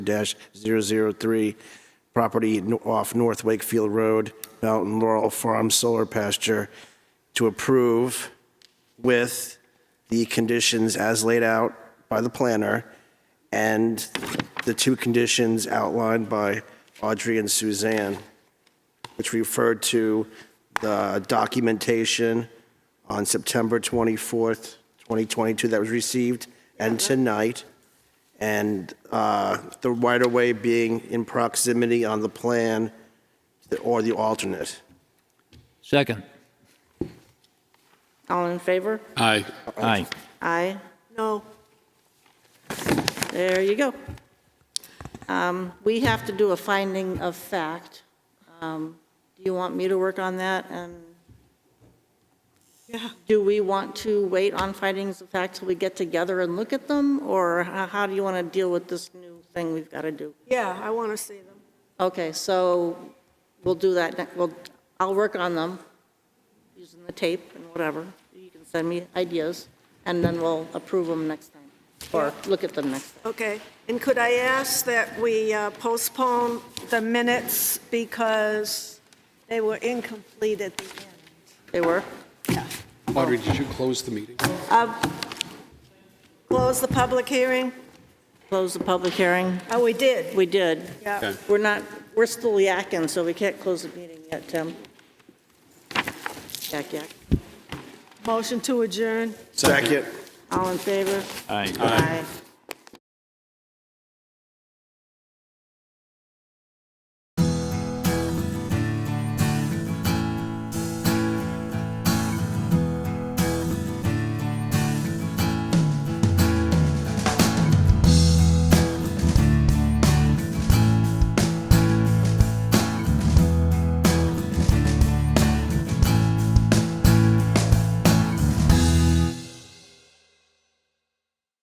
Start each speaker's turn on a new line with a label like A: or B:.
A: dash zero zero three, property no- off North Wakefield Road, Mountain Laurel Farm Solar Pasture, to approve with the conditions as laid out by the planner and the two conditions outlined by Audrey and Suzanne, which referred to the documentation on September 24th, 2022 that was received, and tonight and uh, the right-of-way being in proximity on the plan or the alternate.
B: Second.
C: All in favor?
D: Aye.
B: Aye.
C: Aye. No. There you go. Um, We have to do a finding of fact. Um, Do you want me to work on that? And do we want to wait on findings of fact till we get together and look at them? Or how how do you want to deal with this new thing we've got to do?
E: Yeah, I want to see them.
C: Okay, so we'll do that, ne- we'll, I'll work on them, using the tape and whatever. You can send me ideas, and then we'll approve them next time, or look at them next. time.
E: Okay. And could I ask that we uh, postpone the minutes because they were incomplete at the end?
C: They were?
D: Audrey, did you close the meeting?
E: Close the public hearing?
C: Close the public hearing?
E: Oh, we did.
C: We did.
E: Yeah.
C: We're not, we're still yakking, so we can't close the meeting yet, Tim. Yak, yak.
E: Motion to adjourn?
A: Second.
C: All in favor?
B: Aye.
C: Aye.